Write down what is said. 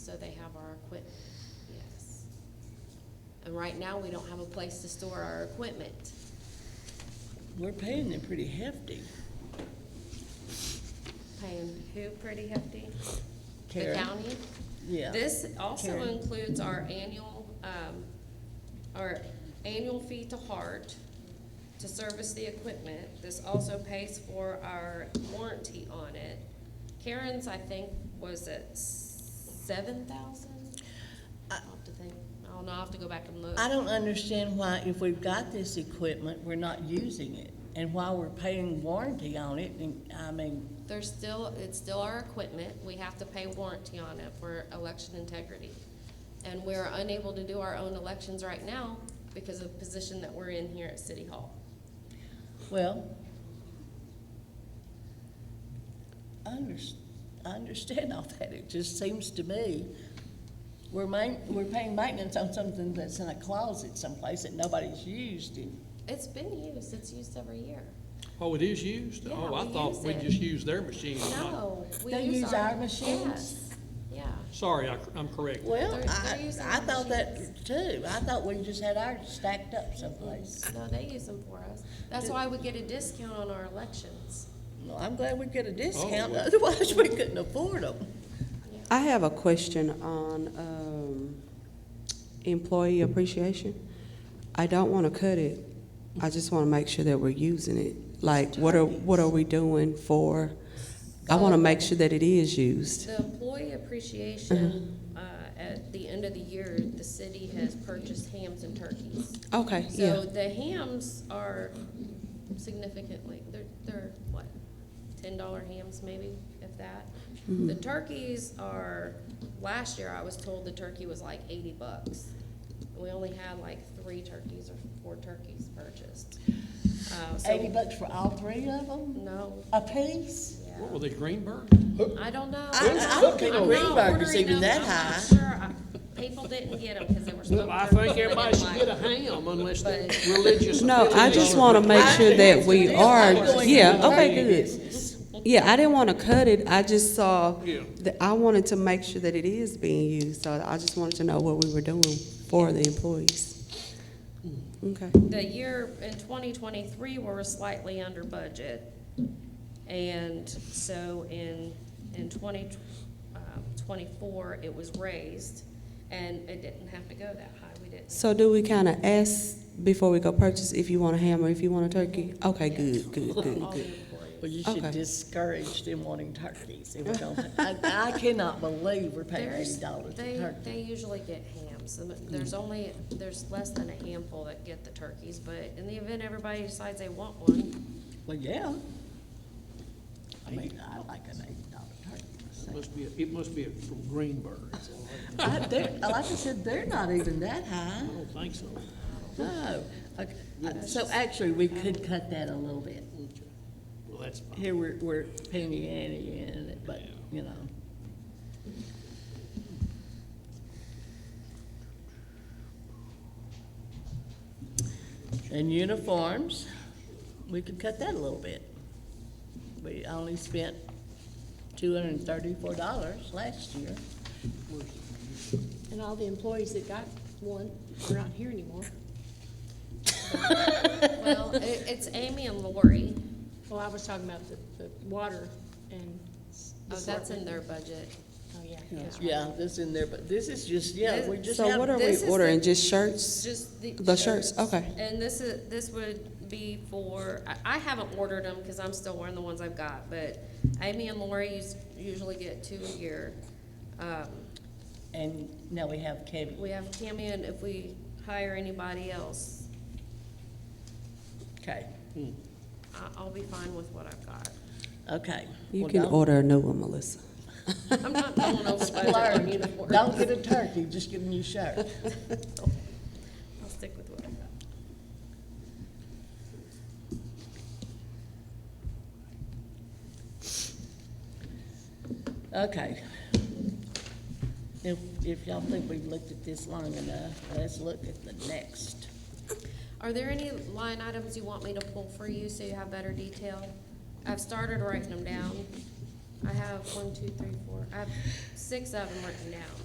so they have our equipment, yes. And right now, we don't have a place to store our equipment. We're paying them pretty hefty. Paying who pretty hefty? The Karen? county? Yeah. This also Karen. includes our annual, um, our annual fee to Hart to service the equipment. This also pays for our warranty on it. Karen's, I think, was at seven thousand? I'll have to think, I don't know, I'll have to go back and look. Uh, I don't understand why, if we've got this equipment, we're not using it, and why we're paying warranty on it, and, I mean, There's still, it's still our equipment, we have to pay warranty on it for election integrity. And we're unable to do our own elections right now because of the position that we're in here at City Hall. well, I under, I understand all that, it just seems to me, we're main, we're paying maintenance on something that's in a closet someplace that nobody's used in. It's been used, it's used every year. Oh, it is used? Yeah, Oh, I we thought use we it. just used their machine. not- No, we They use our machines? Yes, yeah. Sorry, I, am correct. Well, They're- they're I, using I our thought that machines. too, I thought we just had ours stacked up someplace. No, they use them for us. That's why we get a discount on our elections. Well, I'm glad we get a discount, well. otherwise we couldn't afford them. I have a question on um, employee appreciation. I don't want to cut it. I just want to make sure that we're using it. Like, what are, what are we doing for, I want to make sure that it is used. The employee appreciation, uh, at the end of the year, the city has purchased hams and turkeys. Okay, So yeah. the hams are significantly, they're, they're what, ten dollar hams maybe, if that? The turkeys are, last year I was told the turkey was like eighty bucks. We only had like three turkeys or four turkeys purchased. Uh, so- Eighty bucks for all three of them, No, a piece? yeah. What were they, Greenberg? I don't know. I- I don't think I'm not Greenberg is ordering even them. that I'm not sure. I- People didn't get them because they were smoked. I think turkeys. everybody should They get didn't a ham unless they're But- religious. No, I just want to make sure that we are, yeah, okay, good. Yeah, I didn't want to cut it. I just saw, Yeah. that I wanted to make sure that it is being used. So I just wanted to know what we were doing for the employees. Okay. like- The year in twenty twenty-three, we were slightly under budget. And so in, in twenty, um, twenty-four, it was raised and it didn't have to go that high. We didn't. So do we kind of ask before we go purchase if you want a ham or if you want a turkey? Okay, good, good, good, All the good. employees. Well, you Okay. should discourage them wanting turkeys. if we don't- I, I cannot believe we're paying There's- eighty dollars They, for turkey. they usually get hams. The- There's only, there's less than a handful that get the turkeys, but in the event everybody decides they want one, Well, yeah. I mean, I like an eighty dollar turkey. myself. Must be, it must be from Greenberg. I, they're, like I said, they're not even that high, I don't think so. no. Okay, uh, So actually, we could cut that a little bit. Well, that's fine. Here, we're, we're penny ante in it, but, you know. And uniforms, we could cut that a little bit. We only spent two hundred and thirty-four dollars last year. And all the employees that got one are not here anymore. well, it, it's Amy and Lori. Well, I was talking about the, the water and. s- Oh, that's in assortment. their budget. Oh, yeah. Yeah, this in there, but this is just, yeah, we're just So what having, are we This is ordering, the- just shirts? Just the. The shirts, okay. And this is, this would be for, I, I haven't ordered them because I'm still wearing the ones I've got, but Amy and Lori us- usually get two a year. Um, and now we have Kevin. we have Cammy and if we hire anybody else, Okay, I, I'll be fine with what I've got. okay. You Well, can don't- order a new one, Melissa. I'm not going over budget on Splurge. uniforms. Don't get a turkey, just get a new shirt. I'll stick with what I've got. Okay. If, if y'all think we've looked at this long enough, let's look at the next. Are there any line items you want me to pull for you so you have better detail? I've started writing them down. I have one, two, three, four, I have six of them written down.